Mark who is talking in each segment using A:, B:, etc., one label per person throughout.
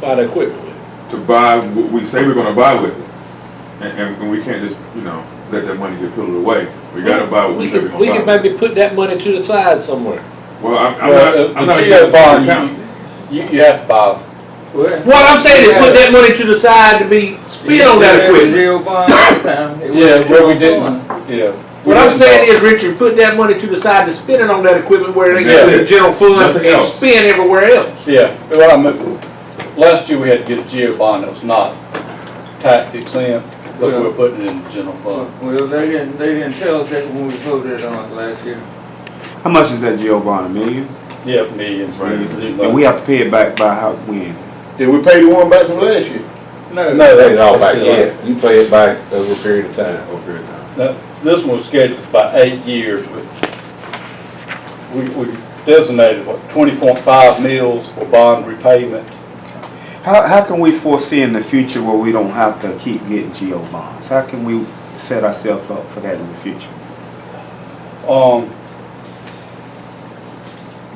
A: buy the equipment.
B: to buy what we say we're gonna buy with it. And, and- and we can't just, you know, let that money get pilled away. We gotta buy what we say
A: could-
B: we're
A: We
B: gonna
A: could
B: buy.
A: maybe put that money to the side somewhere.
B: Well, I'm, I'm
C: Well,
B: not,
C: uh,
B: I'm not
C: but you
B: against
C: gotta
B: the
C: buy,
B: account.
C: you, you- you have to buy.
A: What I'm saying is put that money to the side to be spent on that equipment.
D: Zero bond last time. It
C: Yeah,
D: wasn't
C: where we
D: zero
C: didn't,
D: bond.
C: yeah. we
A: What I'm
C: didn't
A: saying
C: buy-
A: is, Richard, put that money to the side to spend it on that equipment where it goes to the
B: Yeah.
A: general fund
B: Nothing
A: and
B: else.
A: spend everywhere else.
C: Yeah, well, I mean, last year we had to get a geo bond that was not tax exempt, but we
D: Yeah.
C: were putting it in the general fund.
D: Well, they didn't, they didn't tell us that when we voted on it last year.
E: How much is that jail bond? A million?
C: Yeah, millions.
B: Right.
E: And we have to pay it back by how, when?
F: Did we pay the one back from last year?
G: No, they all back yet. You pay it back over a period of time.
B: Over the time.
C: Now, this one was scheduled by eight years, but we, we designated, what, twenty point five mils for bond repayment.
E: How, how can we foresee in the future where we don't have to keep getting geo bonds? How can we set ourselves up for that in the future?
C: Um,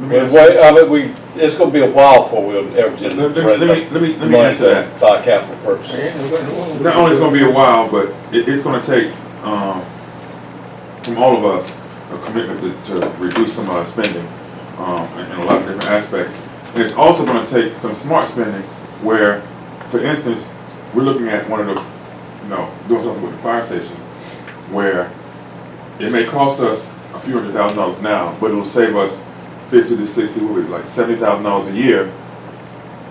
C: but wait, I mean, we, it's gonna be a while before we'll ever
B: Let let
C: generate.
B: me, let me, let me, let me
C: money
B: answer that.
C: to Buy capital purposes.
B: Not only it's gonna be a while, but it, it's gonna take, um, from all of us, a commitment to, to reduce some of our spending, um, in, in a lot of different aspects. And it's also gonna take some smart spending where, for instance, we're looking at one of the, you know, doing something with the fire stations, where it may cost us a few hundred thousand dollars now, but it'll save us fifty to sixty, what would it, like seventy thousand dollars a year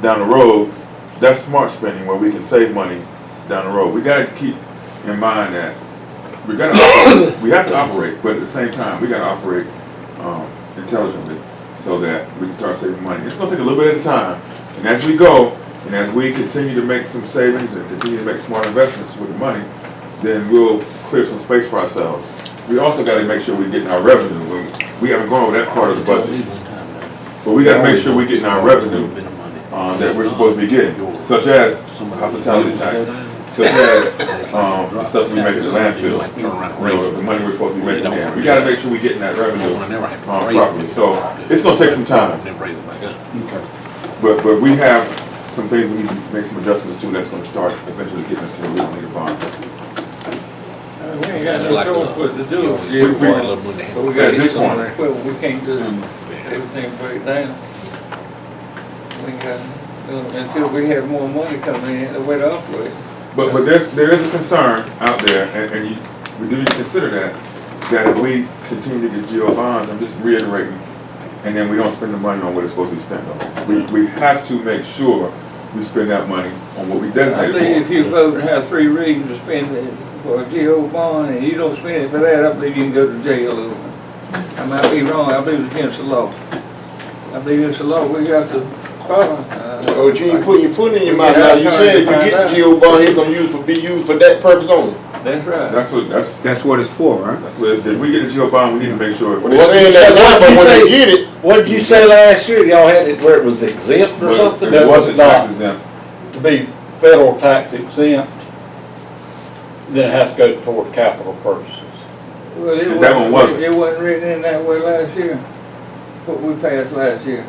B: down the road. That's smart spending where we can save money down the road. We gotta keep in mind that we gotta, operate- we have to operate, but at the same time, we gotta operate, um, intelligently so that we can start saving money. It's gonna take a little bit at a time, and as we go, and as we continue to make some savings and continue to make smart investments with the money, then we'll clear some space for ourselves. We also gotta make sure we're getting our revenue. We- We haven't gone over that part of the budget, but we gotta make sure we're getting our revenue uh, that we're supposed to be getting, such as hospitality tax, such as, um, the stuff we make at the landfill. You know, the money we're supposed to be making there. We gotta make sure we're getting that revenue, uh, properly, so it's gonna take some time. But, but we have some things we need to make some adjustments to that's gonna start eventually getting us to a little bit bond.
D: Uh, We ain't got no choice but to do it.
B: We- we-
D: Yeah, But we
B: At
D: gotta do
B: this
D: something.
B: point.
D: Well, we can't do everything break down. We got, uh, until we have more money coming in, the way to operate.
B: But, but there, there is a concern out there, and, and you, we do need to consider that, that if we continue to get GO bonds, I'm just reiterating, and then we don't spend the money on what it's supposed to be spent on. We, we have to make sure we spend that money on what we
D: I believe
B: designated
D: if you vote and have three reasons to spend it for a GO bond and you don't spend it for that, I believe you can go to jail over. it. I might be wrong, I believe it's against the law. I believe it's the law, we got to follow. uh,
F: Oh, you ain't putting your foot in your mouth now. You said if you get the GO bond, it's gonna use for, be used for that purpose only.
D: That's
B: for.
D: right.
B: That's what, that's,
E: That's what it's for, right?
B: that's what, if we get a GO bond, we need to make sure.
F: Well, they're saying that now, but when they get it,
G: What did you say last year? Y'all had it where it was exempt or
B: But
G: something?
B: It
C: that was
B: wasn't
C: not.
B: tax exempt.
C: to be federal tax exempt, then it has to go toward capital purposes.
D: Well, it
B: That one wasn't.
D: It wasn't written in that way last year, what we passed last year.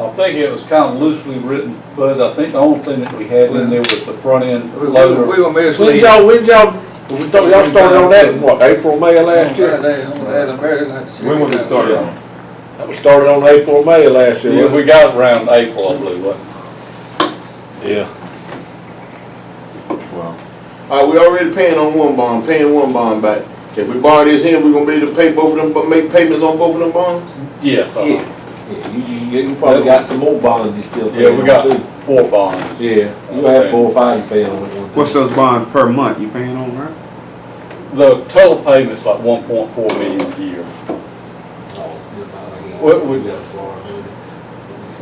C: I think it was kind of loosely written, but I think the only thing that we had in there was the front end
D: We we-
C: loader.
D: we were
G: When
D: misleading.
G: y'all, when y'all, when y'all started on that, in what, April, May of last year?
B: When was it started on?
G: That was started on April, or May of last year.
C: Yeah,
G: wasn't
C: we got it around April, I believe, wasn't
G: it? Yeah.
B: Well,
F: uh, we already paying on one bond, paying one bond back. If we borrow this here, we gonna be able to pay both of them, but make payments on both of them bonds?
C: it? Yes,
G: Yeah,
C: uh-huh.
G: Yeah, you, you, you probably got some more bonds you still. pay
C: yeah, we
G: on,
C: got
G: too.
C: four bonds.
G: Yeah, you had four or five to pay on at one. time.
E: What's those bonds per month you paying on, right?
C: The total payment's like one point four million a year. What would-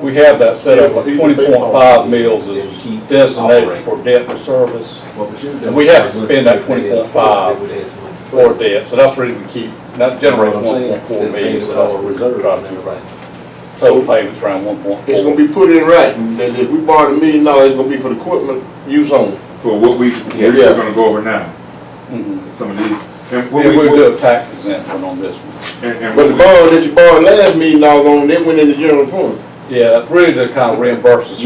C: We have that set up, like twenty point five mils is designated for debt and service And we have to spend that 20.5 or debt, so that's the reason we keep, that generates one point four million, so that's what we're trying to do right now. Total payment's around one point
F: It's gonna
C: four.
F: be put in writing, that if we borrow a million dollars, it's gonna be for the equipment use only.
B: for what we,
F: Yeah.
B: we're gonna go over now,
C: Mhm.
B: some of these. And what
C: And
B: we,
C: we
B: and,
C: do a tax exemption on this one.
B: and.
F: But the bond that you borrowed last million dollars on, that went in the general fund.
C: Yeah, that's really to kind of reimburse us